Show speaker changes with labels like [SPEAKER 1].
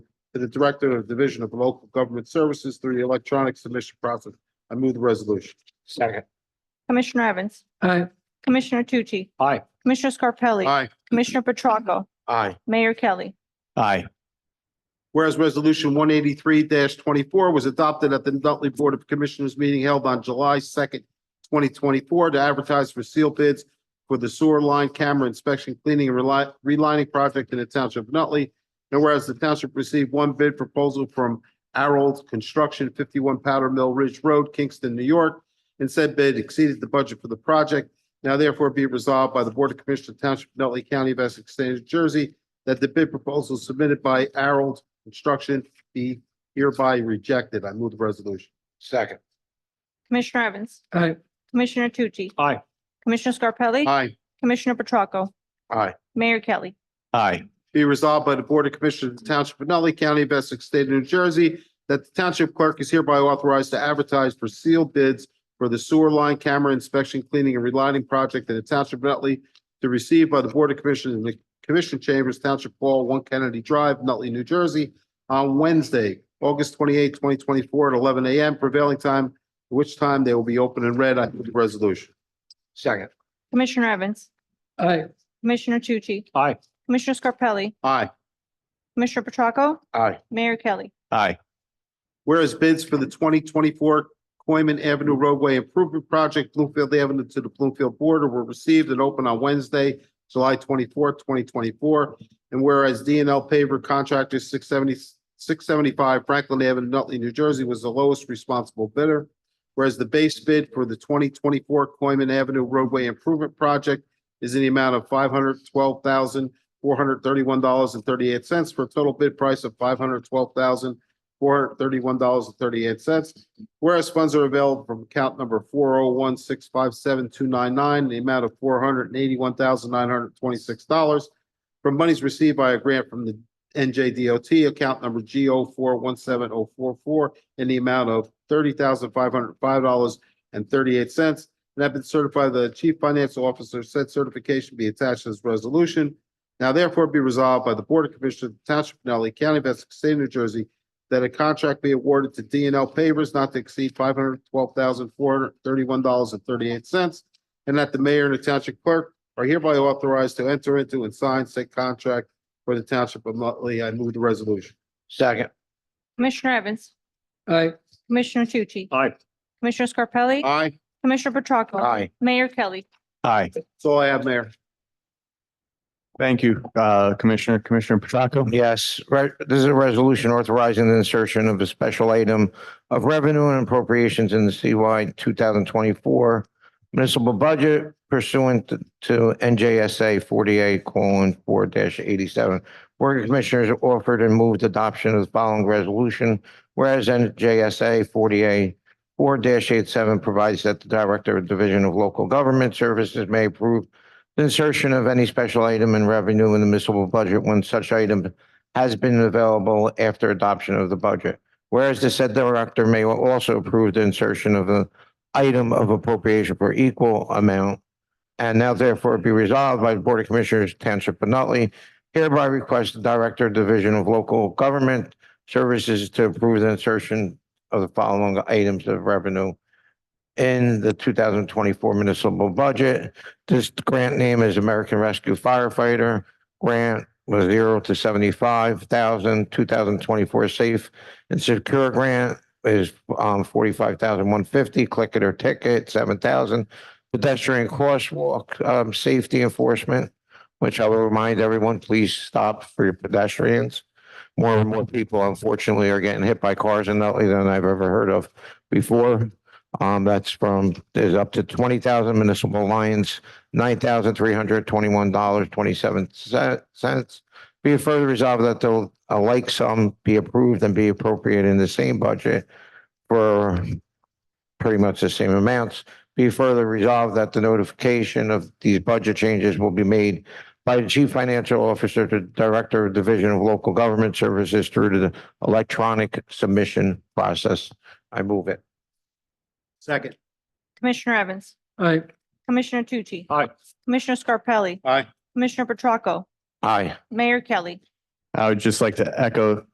[SPEAKER 1] to the Director of Division of Local Government Services through the electronic submission process. I move the resolution.
[SPEAKER 2] Second.
[SPEAKER 3] Commissioner Evans,
[SPEAKER 2] Aye.
[SPEAKER 3] Commissioner Tucci,
[SPEAKER 2] Aye.
[SPEAKER 3] Commissioner Scarpelli,
[SPEAKER 1] Aye.
[SPEAKER 3] Commissioner Petracca,
[SPEAKER 1] Aye.
[SPEAKER 3] Mayor Kelly.
[SPEAKER 2] Aye.
[SPEAKER 1] Whereas Resolution one eighty-three twenty-four was adopted at the Nutley Board of Commissioners meeting held on July second, twenty twenty-four to advertise for seal bids for the sewer line camera inspection, cleaning and reli- relining project in the Township of Nutley. And whereas the township received one bid proposal from Harold Construction, fifty-one Powder Mill Ridge Road, Kingston, New York, and said bid exceeded the budget for the project. Now therefore be resolved by the Board of Commissioners of Township of Nutley County of Essex State of New Jersey that the bid proposal submitted by Harold Construction be hereby rejected. I move the resolution.
[SPEAKER 2] Second.
[SPEAKER 3] Commissioner Evans,
[SPEAKER 2] Aye.
[SPEAKER 3] Commissioner Tucci,
[SPEAKER 2] Aye.
[SPEAKER 3] Commissioner Scarpelli,
[SPEAKER 1] Aye.
[SPEAKER 3] Commissioner Petracca,
[SPEAKER 1] Aye.
[SPEAKER 3] Mayor Kelly.
[SPEAKER 2] Aye.
[SPEAKER 1] Be resolved by the Board of Commissioners of the Township of Nutley County of Essex State of New Jersey that the Township Clerk is hereby authorized to advertise for sealed bids for the sewer line camera inspection, cleaning, and relining project in the Township of Nutley to receive by the Board of Commissioners in the Commission Chambers, Township Hall, One Kennedy Drive, Nutley, New Jersey, on Wednesday, August twenty-eighth, twenty twenty-four, at eleven AM prevailing time, at which time they will be open and read. I move the resolution.
[SPEAKER 2] Second.
[SPEAKER 3] Commissioner Evans,
[SPEAKER 2] Aye.
[SPEAKER 3] Commissioner Tucci,
[SPEAKER 2] Aye.
[SPEAKER 3] Commissioner Scarpelli,
[SPEAKER 1] Aye.
[SPEAKER 3] Commissioner Petracca,
[SPEAKER 2] Aye.
[SPEAKER 3] Mayor Kelly.
[SPEAKER 2] Aye.
[SPEAKER 1] Whereas bids for the twenty twenty-four Coiman Avenue roadway improvement project, Bloomfield Avenue to the Bloomfield border were received and opened on Wednesday, July twenty-fourth, twenty twenty-four. And whereas D and L paver contractor 670 675 Franklin Avenue, Nutley, New Jersey was the lowest responsible bidder. Whereas the base bid for the twenty twenty-four Coiman Avenue roadway improvement project is in the amount of five hundred twelve thousand, four hundred thirty-one dollars and thirty-eight cents for a total bid price of five hundred twelve thousand, four hundred thirty-one dollars and thirty-eight cents. Whereas funds are available from account number four oh one six five seven two nine nine, the amount of four hundred and eighty-one thousand nine hundred twenty-six dollars from monies received by a grant from the NJDOT, account number G O four one seven oh four four, in the amount of thirty thousand five hundred five dollars and thirty-eight cents. And have been certified by the Chief Financial Officer, said certification be attached to this resolution. Now therefore be resolved by the Board of Commissioners of the Township of Nutley County of Essex State of New Jersey that a contract be awarded to D and L pavers not to exceed five hundred twelve thousand four hundred thirty-one dollars and thirty-eight cents. And that the mayor and the township clerk are hereby authorized to enter into and sign said contract for the township of Nutley. I move the resolution.
[SPEAKER 2] Second.
[SPEAKER 3] Commissioner Evans,
[SPEAKER 2] Aye.
[SPEAKER 3] Commissioner Tucci,
[SPEAKER 2] Aye.
[SPEAKER 3] Commissioner Scarpelli,
[SPEAKER 1] Aye.
[SPEAKER 3] Commissioner Petracca,
[SPEAKER 2] Aye.
[SPEAKER 3] Mayor Kelly.
[SPEAKER 4] Aye,
[SPEAKER 1] That's all I have, Mayor.
[SPEAKER 4] thank you, uh, Commissioner, Commissioner Petracca.
[SPEAKER 2] Yes, right. This is a resolution authorizing the insertion of a special item of revenue and appropriations in the CY two thousand twenty-four municipal budget pursuant to- to NJSA forty-eight colon four eighty-seven. Board of Commissioners offered and moved adoption of the following resolution, whereas NJSA forty-eight four 87 provides that the Director of Division of Local Government Services may approve the insertion of any special item in revenue in the municipal budget when such item has been available after adoption of the budget. Whereas the said director may also approve the insertion of an item of appropriation for equal amount. And now therefore be resolved by the Board of Commissioners, Township of Nutley, hereby request the Director of Division of Local Government Services to approve the insertion of the following items of revenue in the two thousand twenty-four municipal budget. This grant name is American Rescue Firefighter Grant was zero to seventy-five thousand, two thousand twenty-four safe and secure grant is um forty-five thousand one fifty, click it or ticket, seven thousand. Pedestrian crosswalk, um, safety enforcement, which I will remind everyone, please stop for your pedestrians. More and more people unfortunately are getting hit by cars in Nutley than I've ever heard of before. Um, that's from, there's up to twenty thousand municipal lions nine thousand three hundred twenty-one dollars twenty-seven cents. Be it further resolved that the a like sum be approved and be appropriate in the same budget for pretty much the same amounts. Be further resolved that the notification of these budget changes will be made by the Chief Financial Officer to Director of Division of Local Government Services through the electronic submission process. I move it.
[SPEAKER 1] Second.
[SPEAKER 3] Commissioner Evans,
[SPEAKER 2] Aye.
[SPEAKER 3] Commissioner Tucci,
[SPEAKER 2] Aye.
[SPEAKER 3] Commissioner Scarpelli,
[SPEAKER 1] Aye.
[SPEAKER 3] Commissioner Petracca,
[SPEAKER 2] Aye.
[SPEAKER 3] Mayor Kelly.
[SPEAKER 4] I would just like to echo